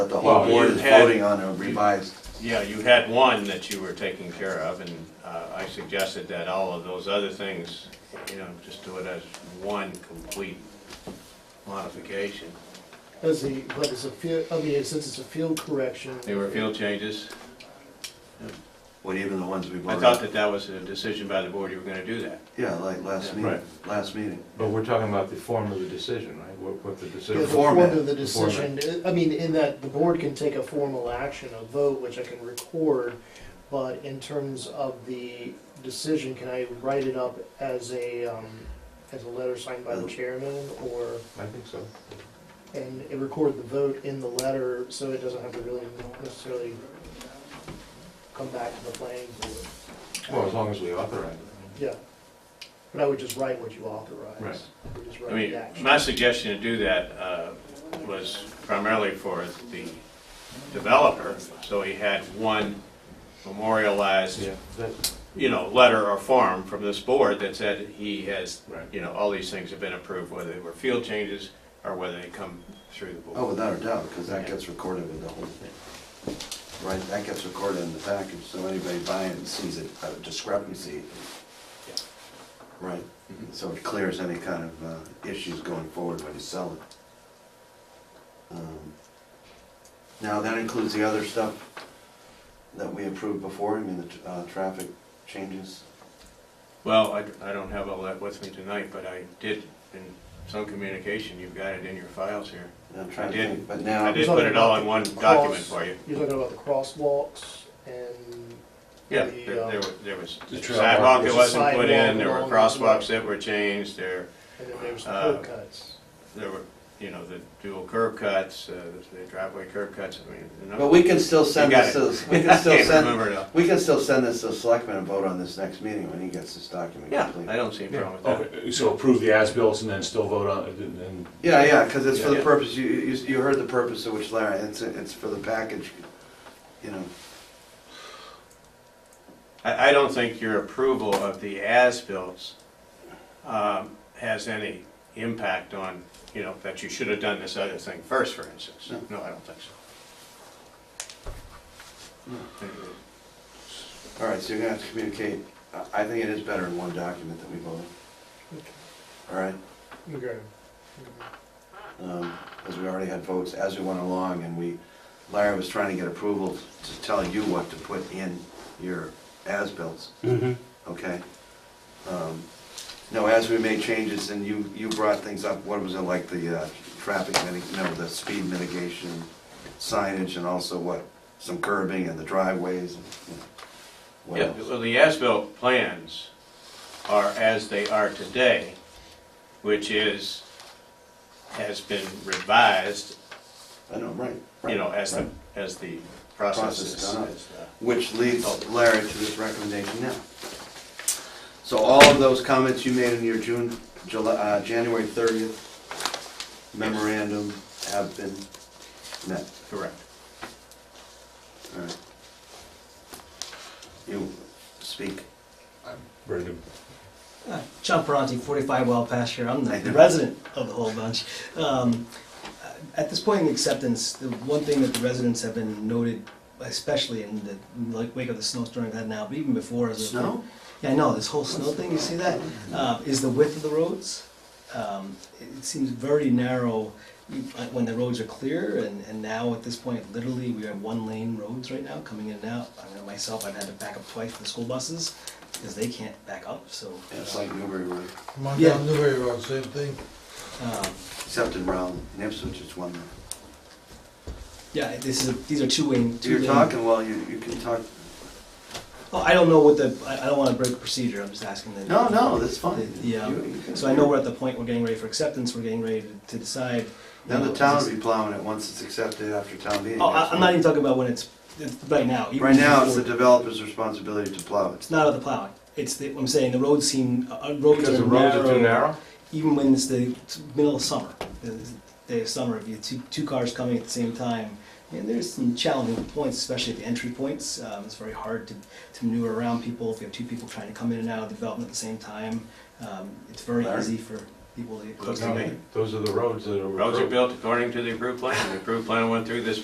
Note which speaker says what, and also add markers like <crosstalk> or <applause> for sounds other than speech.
Speaker 1: the whole
Speaker 2: Well, you
Speaker 1: board is
Speaker 2: had-
Speaker 1: voting on a revised.
Speaker 2: Yeah, you had one that you were taking care of, and uh, I suggested that all of those other things, you know, just do it as one complete modification.
Speaker 3: As the, but it's a field, I mean, since it's a field correction.
Speaker 2: They were field changes.
Speaker 1: Well, even the ones we
Speaker 2: I
Speaker 1: voted.
Speaker 2: thought that that was a decision by the board, you were gonna do that.
Speaker 1: Yeah, like last
Speaker 2: Yeah,
Speaker 1: meeting,
Speaker 4: right.
Speaker 1: last meeting.
Speaker 4: But we're talking about the form of the decision, right? What, what the
Speaker 3: Yeah,
Speaker 4: decision.
Speaker 3: The
Speaker 1: Form-
Speaker 3: form
Speaker 1: format.
Speaker 3: of the
Speaker 4: The format.
Speaker 3: decision, I mean, in that the board can take a formal action, a vote, which I can record, but in terms of the decision, can I write it up as a, um, as a letter signed by the chairman, or,
Speaker 4: I think so.
Speaker 3: and it record the vote in the letter, so it doesn't have to really necessarily come back to the planning board?
Speaker 4: Well, as long as we authorize it.
Speaker 3: Yeah, but I would just write what you authorize.
Speaker 4: Right.
Speaker 3: I would just
Speaker 2: I
Speaker 3: write
Speaker 2: mean,
Speaker 3: the action.
Speaker 2: my suggestion to do that uh, was primarily for the developer, so he had one memorialized,
Speaker 4: Yeah, that,
Speaker 2: you know, letter or form from this board that said he has,
Speaker 4: Right.
Speaker 2: you know, all these things have been approved, whether they were field changes or whether they come through the
Speaker 1: Oh,
Speaker 2: board.
Speaker 1: without a doubt, because that gets recorded in the whole thing. Right, that gets recorded in the package, so anybody buying sees it, a discrepancy.
Speaker 2: Yeah.
Speaker 1: Right,
Speaker 2: Mhm.
Speaker 1: so it clears any kind of uh, issues going forward when you sell it. Um, Now, that includes the other stuff that we approved before, I mean, the tr- uh, traffic changes.
Speaker 2: Well, I I don't have all that with me tonight, but I did, in some communication, you've got it in your files here.
Speaker 1: I'm trying to
Speaker 2: I did.
Speaker 1: think, but
Speaker 2: I
Speaker 1: now,
Speaker 2: did put it all in one document for you.
Speaker 3: You're talking about the crosswalks and.
Speaker 2: Yeah,
Speaker 3: the,
Speaker 2: there
Speaker 3: um,
Speaker 2: there was, there was
Speaker 4: The trail
Speaker 2: sidewalk that
Speaker 3: markers.
Speaker 2: wasn't put in, there were
Speaker 3: Sidewalk along the-
Speaker 2: crosswalks that were changed, there,
Speaker 3: And then there's the
Speaker 2: Uh,
Speaker 3: curb cuts.
Speaker 2: there were, you know, the dual curb cuts, uh, the driveway curb cuts, I mean. a number-
Speaker 1: but we can still send
Speaker 2: You got
Speaker 1: this,
Speaker 2: it.
Speaker 1: to-
Speaker 2: <laughs>
Speaker 1: we can
Speaker 2: I
Speaker 1: still
Speaker 2: can't
Speaker 1: send,
Speaker 2: remember it all.
Speaker 1: we can still send this to the selectman and vote on this next meeting when he gets this document
Speaker 2: Yeah, I
Speaker 1: complete.
Speaker 2: don't see a problem with that.
Speaker 5: Okay, so approve the as-built and then still vote on, and then
Speaker 1: Yeah, yeah, because it's for the
Speaker 2: Yeah.
Speaker 1: purpose, you, you, you heard the purpose of which Larry, it's, it's for the package, you know.
Speaker 2: I, I don't think your approval of the as-bills um, has any impact on, you know, that you should have done this other thing first, for instance. No, I don't think so.
Speaker 1: All right, so you're gonna have to communicate, I- I think it is better in one document that we vote. All right,
Speaker 3: Okay.
Speaker 1: um, as we already had votes as we went along, and we, Larry was trying to get approval to tell you what to put in your as-bills. Okay? Um, No, as we made changes, and you, you brought things up, what was it, like the uh, traffic, mitig- no, the speed mitigation signage, and also what, some curbing and the driveways, and, you know, what
Speaker 2: Yeah,
Speaker 1: else?
Speaker 2: well, the as-built plans are as they are today, which is, has been revised,
Speaker 1: I know, right. right,
Speaker 2: you know, as the,
Speaker 1: right.
Speaker 2: as the process
Speaker 1: Process
Speaker 2: is.
Speaker 1: gone up.
Speaker 2: is, uh,
Speaker 1: Which leads Larry to this recommendation now. So all of those comments you made in your June, July, uh, January thirtieth memorandum have been met.
Speaker 2: Correct.
Speaker 1: All right. You speak.
Speaker 4: Brendan.
Speaker 6: Uh, John Ferranti, 45 Wild Pasture. I'm the resident of the whole bunch. Um, At this point in acceptance, the one thing that the residents have been noted, especially in the like wake of the snowstorm we've had now, but even before, is the-
Speaker 1: Snow?
Speaker 6: Yeah, I know this whole snow thing. You see that? Uh, is the width of the roads? Um, it it seems very narrow uh, when the roads are clear, and, and now at this point, literally, we are one lane roads right now coming in and out. I know myself, I've had to back up twice for the school buses because they can't back up. So
Speaker 1: It's like Newbury Road,
Speaker 6: Yeah.
Speaker 7: Montgomery Newbury Road, same thing.
Speaker 6: Um,
Speaker 1: except in Rowland, in Ipswich, it's one. lane.
Speaker 6: Yeah, this is, a- these are two-way, two
Speaker 1: You're talking, well, you, you can talk,
Speaker 6: Oh, I don't know what the, I, I don't wanna break procedure, I'm just asking the.
Speaker 1: no, no, that's fine.
Speaker 6: the- Yeah,
Speaker 1: You- you can-
Speaker 6: so I know we're at the point, we're getting ready for acceptance, we're getting ready to decide. you
Speaker 1: Then
Speaker 6: know,
Speaker 1: the town
Speaker 6: is
Speaker 1: will be plowing it once it's accepted after town
Speaker 6: this-
Speaker 1: meeting.
Speaker 6: Oh, I, I'm not even talking about when it's, it's right now. even
Speaker 1: Right now, it's the
Speaker 6: before-
Speaker 1: developer's responsibility to plow it.
Speaker 6: It's not of the plowing, it's the, I'm saying, the roads seem, uh, uh, roads
Speaker 4: Because the roads are
Speaker 6: narrow.
Speaker 4: too narrow?
Speaker 6: even when it's the middle of summer, the day of summer, if you have two, two cars coming at the same time, and there's some challenging points, especially at the entry points. Um, it's very hard to, to maneuver around people if you have two people trying to come in and out of development at the same time. Um, it's very
Speaker 1: Larry?
Speaker 6: easy for people to get close to
Speaker 2: Looks
Speaker 6: me.
Speaker 2: to me.
Speaker 4: Those are the roads that are.
Speaker 2: Roads are
Speaker 4: approved.
Speaker 2: built according to the approved plan, the approved plan went through this